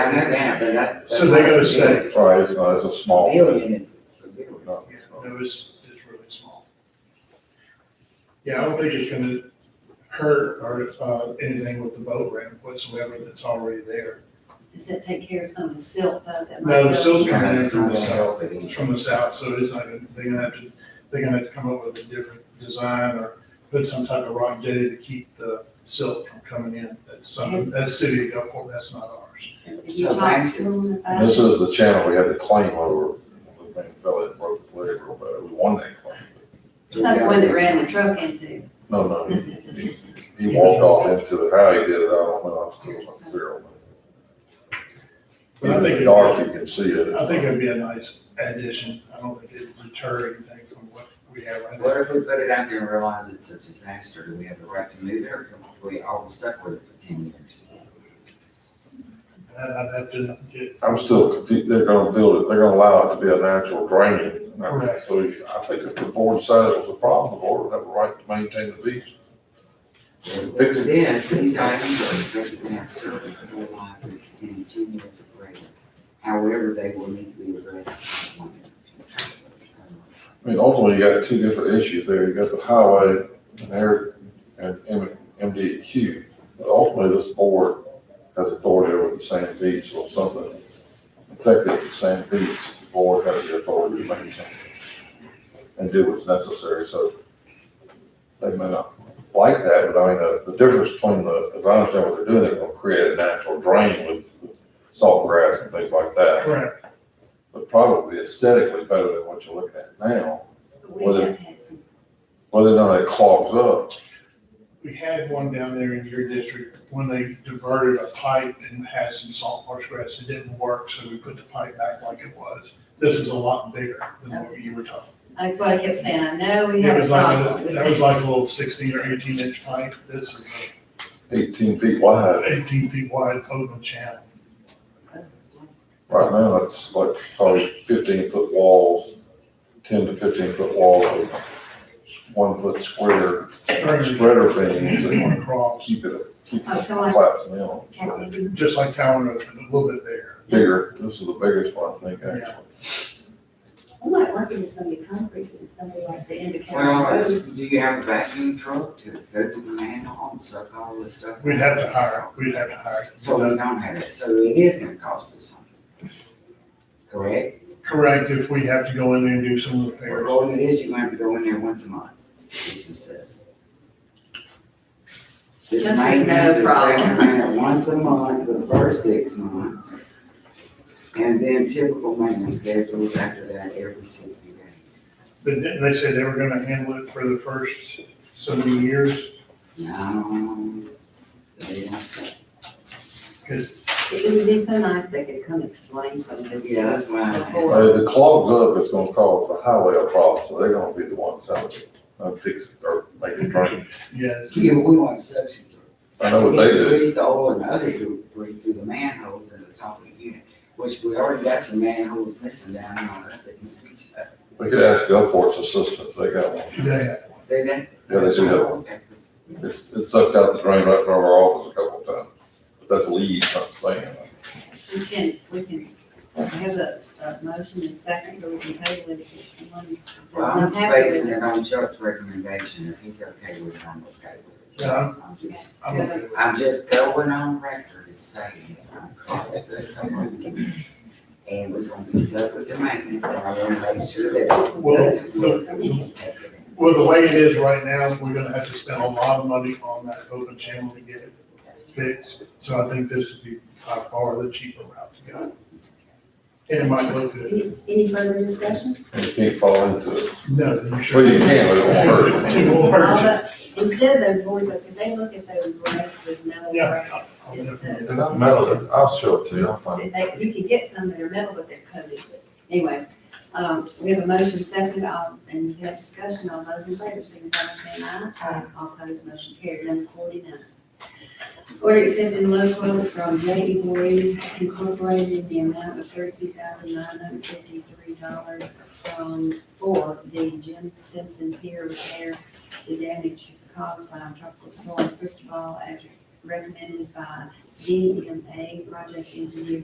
I know that, but that's. So they gotta stay. Right, it's not, it's a small. Billion is. No, Yeah, it's not. no, it's, it's really small. Yeah, I don't think it's gonna hurt or, uh, anything with the boat ramp whatsoever that's already there. Does it take care of some of the silt though that might No, the go? silt's coming in from the Yeah. south, from the south, so it's not, gonna- they're gonna have to, they're gonna have to come up with a different design or put some type of rock jetty to keep the silt from coming in. That's something, that's city of Gulfport, that's not ours. Have you talked to them about And This it? is the channel we had the claim over, when the thing fell in, broke the leg, but we won that claim. It's not the one that ran the truck into. No, no, he, he- he walked off into it, how he did it, I don't know, I'm still not clear on that. But I think In the it- dark, you can see it. I think it'd be a nice addition. I don't think it'd deter anything from what we have right now. What if we put it out there and realize it's a disaster? Do we have the right to move it or can we all stuck with it for ten years? I'd I'd have to get, I'm still confused, they're gonna build it, they're gonna allow it to be a natural drain. And I- Correct. So I think if the board decided it was a problem, the board would have a right to maintain the beach. Fix it. This, these items are expected to have serviceable life to extend ten years or greater. However, they will need to be addressed. in the future. I mean, ultimately, you got two different issues there. You got the highway and air and M- MDQ. But ultimately, this board has authority over the sand beach or something affected the sand beach. The board has the authority to maintain and do what's necessary. So they may not like that, but I mean, the, the difference between the, as I understand what they're doing, they're gonna create a natural drain with with salt grass and things like that. correct, But probably aesthetically better than what you're looking at now. We Well, have had some, whether or not it clogs up. We had one down there in your district when they diverted a pipe and had some salt marsh grass. It didn't work, so we put the pipe back like it was. This is a lot bigger than what you were talking. that's what I kept saying, I know we It have a was like, problem. a- that was like a little sixteen or eighteen inch pipe. This is Eighteen feet a wide, eighteen feet wide open channel. right now, it's like probably fifteen foot walls, ten to fifteen foot wall, of one foot square spreader beams, They and want to cross, keep it, keep Oh, it come on. collapsing down. Can we do- just like Tower Road, but a little bit bigger. Bigger, this is the biggest one, I think, actually. We might work into some of the concrete, and some of like the indicator. Well, it's- do you have a vacuum truck to go to the manhole and suck all this stuff? We'd have to hire, we'd have to hire. So we don't have it, so it is gonna cost us something. Correct? Correct, if we have to go in there and do some repairs. Well, it is, you have to go in there once a month, it just says. This This is maintenance no is problem. recommended once a month for the first six months. And then typical maintenance schedules after that every sixty days. But didn't they say they were gonna handle it for the first so many years? No, they don't say. It would be so nice if they could come explain some of this Yeah, to that's us what I- before. But if it Uh, clogs up, it's gonna cause the highway a problem, so they're gonna be the ones having to uh, fix it or make it drain. Yes. Yeah, we want suction. I know what they We do. Grease the oil and other debris through the manholes in the top of the unit, which we already got some manholes missing down on that. so We could ask Gulfport's assistance, they got one. Yeah, They didn't. Yeah, they do have Okay. It's, it sucked out the drain right from our office a couple of times, but that's leaves, I'm saying. We can, we can have a, a motion and second, or we can table it if someone does Well, I'm not happy basing with it. it on Chuck's recommendation, if he's okay with it, I'm okay with it. Yeah. I'm just, I'm okay with it. I'm just going on record as saying it's gonna cost us some money. And we're gonna be stuck with the maintenance, and I wanna make sure that. it Well, doesn't look that we can take it in. Well, the way it is right now, we're gonna have to spend a lot of money on that open channel to get it fixed. So I think this would be by far the cheaper route to go. And it might look good. Any, any further discussion? You can't fall into it. No, you Well, you should. can, but it won't hurt. It won't hurt. All that- Instead of those boards, up, if they look at those grants as metal Yeah. grants, I'll if definitely- the- And I'm metal, I'll show it to you, I'll find that it. they, you could get some that are metal, but they're coated, but anyway. Um, we have a motion second, um, and we have discussion, all those in favor, signify by saying aye. Aye. All opposed, motion carried, number forty-nine. Order accepting low quote from J E Boys Incorporated in the amount of thirty-two thousand nine hundred fifty-three dollars from, for the Jim Simpson Pier repair to damage caused by tropical storm Cristobal as recommended by DMA project engineer